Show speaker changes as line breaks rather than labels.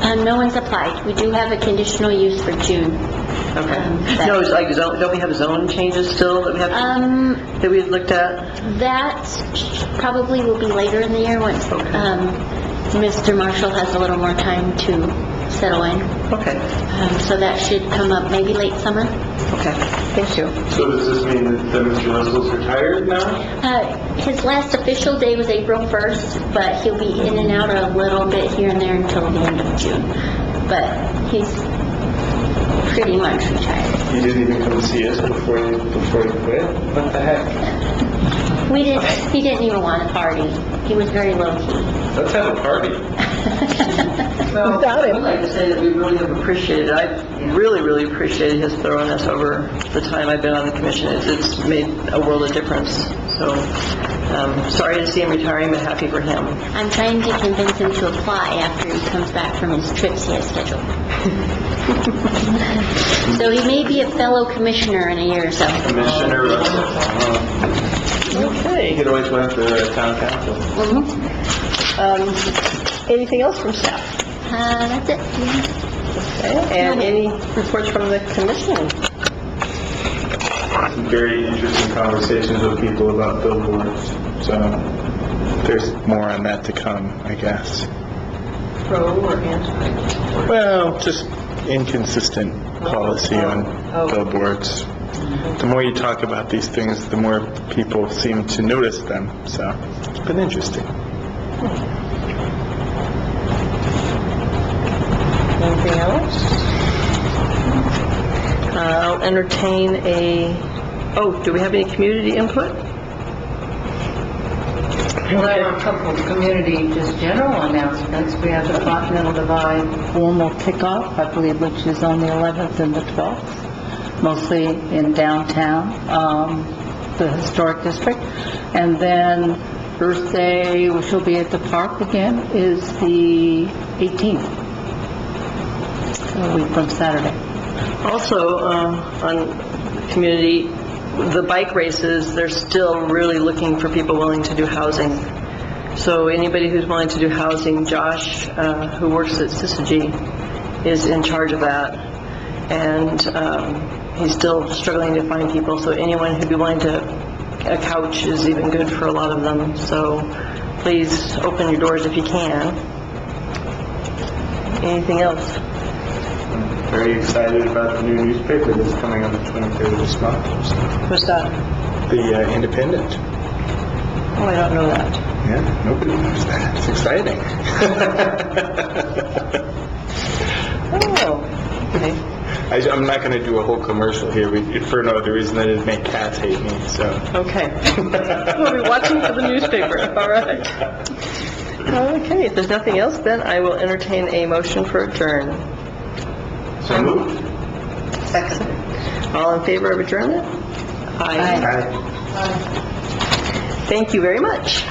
Um, no one's applied. We do have a conditional use for June. Um,
Okay.
that-
No, it's like zone, don't we have zone changes still that we have,
Um,
that we had looked at?
That probably will be later in the year once
Okay.
um, Mr. Marshall has a little more time to settle in.
Okay,
Um, So that should come up maybe late summer.
okay, thank you.
So does this mean that that Mr. Russell's retired now?
Uh, His last official day was April 1st, but he'll be in and out a little bit here and there until the end of June. But he's pretty much retired.
You didn't even come see us before you, before you quit? What the heck?
We didn't, he didn't even want a party. He was very low-key.
Let's have a party.
Well,
Without him.
I'd like to say that we really have appreciated, I really, really appreciated his thoroughness over the time I've been on the commission. It's, it's made a world of difference, so, um, sorry to see him retiring, but happy for him.
I'm trying to convince him to apply after he comes back from his trips he has scheduled. So he may be a fellow commissioner in a year or so. Uh,
Commissioner Russell. You
Okay.
could always went to the town council.
Mhm.
Um, Anything else from staff?
Uh, that's it.
Okay. And any reports from the commission?
Some very interesting conversations with people about billboards, so there's more on that to come, I guess.
Pro or anti?
Well, just inconsistent policy on
Oh.
billboards. The more you talk about these things, the more people seem to notice them, so it's been interesting.
Anything else? I'll entertain a, oh, do we have any community input?
Well, there are a couple of community, just general announcements. We have the Continental Divide formal kickoff, I believe, which is on the 11th and the 12th, mostly in downtown, um, the historic district. And then Earth Day, which will be at the park again, is the 18th, a week from Saturday.
Also, um, on community, the bike races, they're still really looking for people willing to do housing. So anybody who's willing to do housing, Josh, uh, who works at Syzygy, is in charge of that. And um, he's still struggling to find people, so anyone who'd be willing to, a couch is even good for a lot of them. So please open your doors if you can. Anything else?
Very excited about the new newspaper that's coming on the 23rd of this month.
What's that?
The uh, Independent.
Oh, I don't know that.
Yeah, nobody knows that. It's exciting.
Oh, okay.
I, am not going to do a whole commercial here we- for no other reason than to make cats hate me, so.
Okay. We'll be watching for the newspaper, all right. Okay, if there's nothing else, then I will entertain a motion for adjourn.
So moved.
All in favor of adjournment? Aye. Thank you very much.